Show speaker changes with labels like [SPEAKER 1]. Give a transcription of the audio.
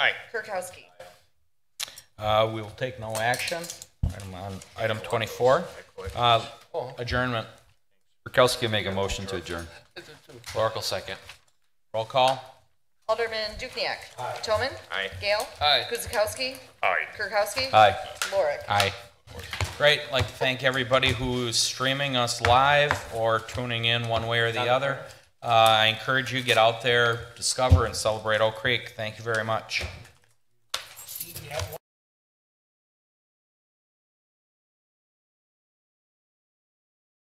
[SPEAKER 1] Aye.
[SPEAKER 2] Kirkowski.
[SPEAKER 1] Uh, We will take no action. Item on- Item 24, Uh, adjournment.
[SPEAKER 3] Kirkowski will make a motion to adjourn.
[SPEAKER 4] Oracle second.
[SPEAKER 1] Roll call.
[SPEAKER 2] Alderman Dukniak. Toman.
[SPEAKER 4] Aye.
[SPEAKER 2] Gale.
[SPEAKER 4] Aye.
[SPEAKER 2] Guzekowski.
[SPEAKER 4] Aye.
[SPEAKER 2] Kirkowski.
[SPEAKER 3] Aye.
[SPEAKER 2] Lorick.
[SPEAKER 1] Aye. Great. I'd Like to thank everybody who's streaming us live or tuning in one way or the other. Uh, I encourage you, get out there, discover and celebrate Oak Creek. Thank you very much.